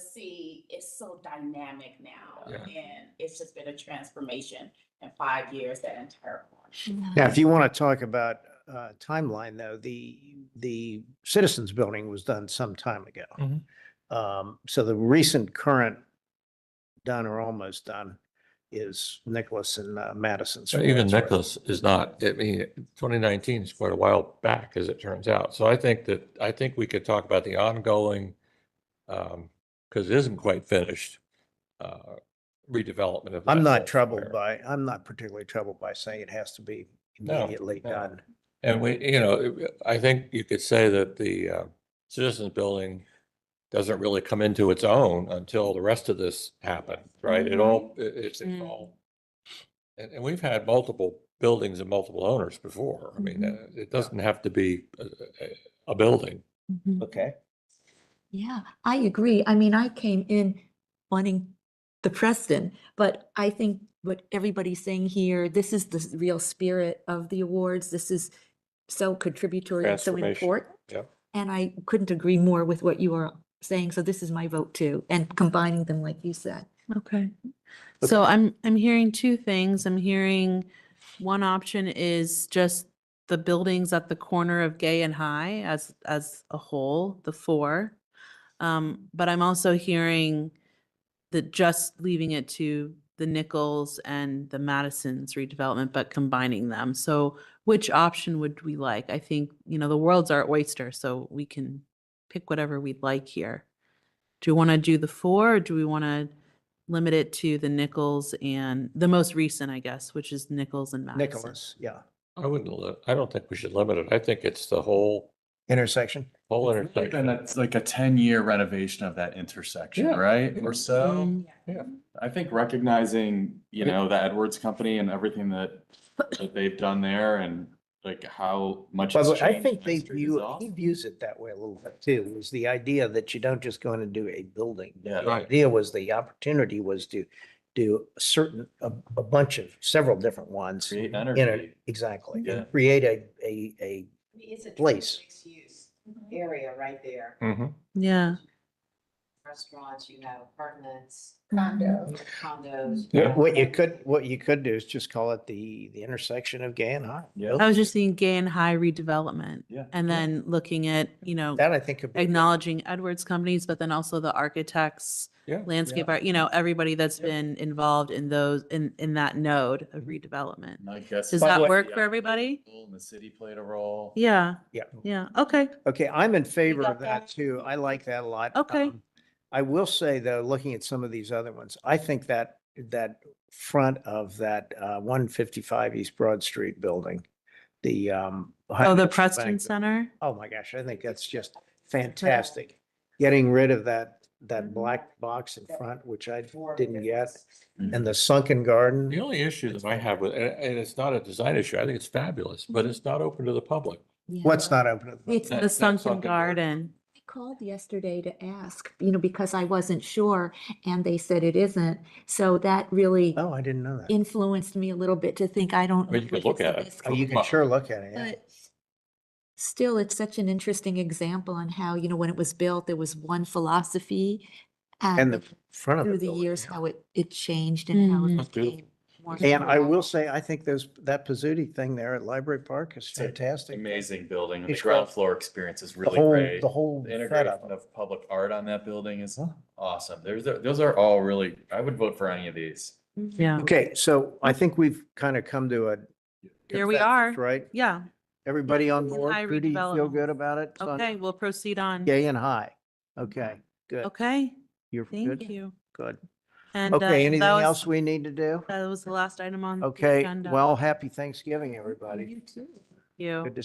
see it's so dynamic now Yeah. and it's just been a transformation in five years, that entire corner. Now, if you want to talk about uh, timeline, though, the, the Citizens Building was done some time ago. Mhm. Um, So the recent current done or almost done is Nicholas and uh, Madison's. So Even Nicholas is not, I mean, twenty nineteen is quite a while back, as it turns out. So I think that, I think we could talk about the ongoing, um, because it isn't quite finished, uh, redevelopment of. I'm that not whole troubled square. by, I'm not particularly troubled by saying it has to be No, immediately no. done. And we, you know, it- I think you could say that the uh, Citizens Building doesn't really come into its own until the rest of this happened, right? It all, it- it's it's Mm. all. And, and we've had multiple buildings and multiple owners before. I mean, uh, it doesn't have to be a, a- a building. Mhm. Okay. Yeah, I agree. I mean, I came in wanting the Preston, but I think what everybody's saying here, this is the s- real spirit of the awards. This is so contributory and so Transformation. important. Yep. And I couldn't agree more with what you are saying. So this is my vote too, and combining them like you said. Okay. So I'm, I'm hearing two things. I'm hearing one option is just the buildings at the corner of Gay and High as, as a whole, the four. Um, but I'm also hearing that just leaving it to the Nichols and the Madison's redevelopment, but combining them. So which option would we like? I think, you know, the world's our oyster, so we can pick whatever we'd like here. Do we want to do the four or do we want to limit it to the Nichols and the most recent, I guess, which is Nichols and Madison? Nicholas, yeah, I wouldn't, li- I don't think we should limit it. I think it's the whole, intersection. whole It's really intersection. been a- like a ten-year renovation of that intersection, Yeah. right? Or so. Mm, I think recognizing, you Yeah. know, the Edwards Company and everything that, that they've done there and like how much. By it's the way, I changed think and they street view, dissolved. he views it that way a little bit too, was the idea that you don't just go in and do a building. Yeah. The Right. idea was the opportunity was to do a certain, a, a bunch of, several different ones. Create In it, energy. exactly. Yeah. Create a, a, a, It's a Place. mixed-use area right there. Mhm. Yeah. Restaurants, you have apartments. Condos. Condos. Yeah. have- what you could, what you could do is just call it the, the intersection of gay and high. Yeah. I was just thinking gay and high redevelopment. Yeah. And then looking at, you know, That I think could be, acknowledging Edwards companies, but then also the architects, Yeah. landscape art, you know, everybody that's been involved in those, in, in that node of redevelopment. And I guess. Does By the that way- work for everybody? And the city played a role. Yeah, yeah. yeah, okay. Okay, I'm in favor got of that? that too. I like that a lot. Okay. Um, I will say though, looking at some of these other ones, I think that, that front of that uh, one fifty-five East Broad Street building, the um. behind Oh, the National Preston Bank, Center? Oh my gosh, I think that's just fantastic. Getting rid of that, Mm-hmm. that black box in front, which I didn't get, and the sunken The garden. only issue that I have with, and, and it's not a design issue. I think it's fabulous, but it's not open to the public. What's not open? at the- It's That- The that Sunken sunken garden. Garden. I called yesterday to ask, you know, because I wasn't sure and they said it isn't. So that really Oh, I didn't know that. influenced me a little bit to think I don't. I mean, know you could if look it's a at it. risk Oh, you can Well, sure look at it, yeah. But still, it's such an interesting example on how, you know, when it was built, there was one philosophy. um, And um, the front of the Through the building, years, yeah. how it, it changed and how it Mhm. That's beautiful. became more. And I will thorough. say, I think those, that Pizzuti thing there at Library Park is It's a fantastic. Amazing building. The It's ground great. floor experience is The really whole, great. the whole The set Integration of them. of public art on that building is Huh. awesome. There's, those are all really, I would vote for any of these. Yeah, Okay, so I think we've kind of come to a. Here we consensus, are. Right? yeah. Everybody on Gay and board? high Trudy, you feel redevelopment. good about it? It's on Okay, we'll proceed on. Gay and high. Okay, good. Okay, You're thank good? you. Good. And, uh, Okay, that anything was- else we need to do? That was the last item on. the Okay, agenda. well, happy Thanksgiving, everybody. You too. Thank You. Good to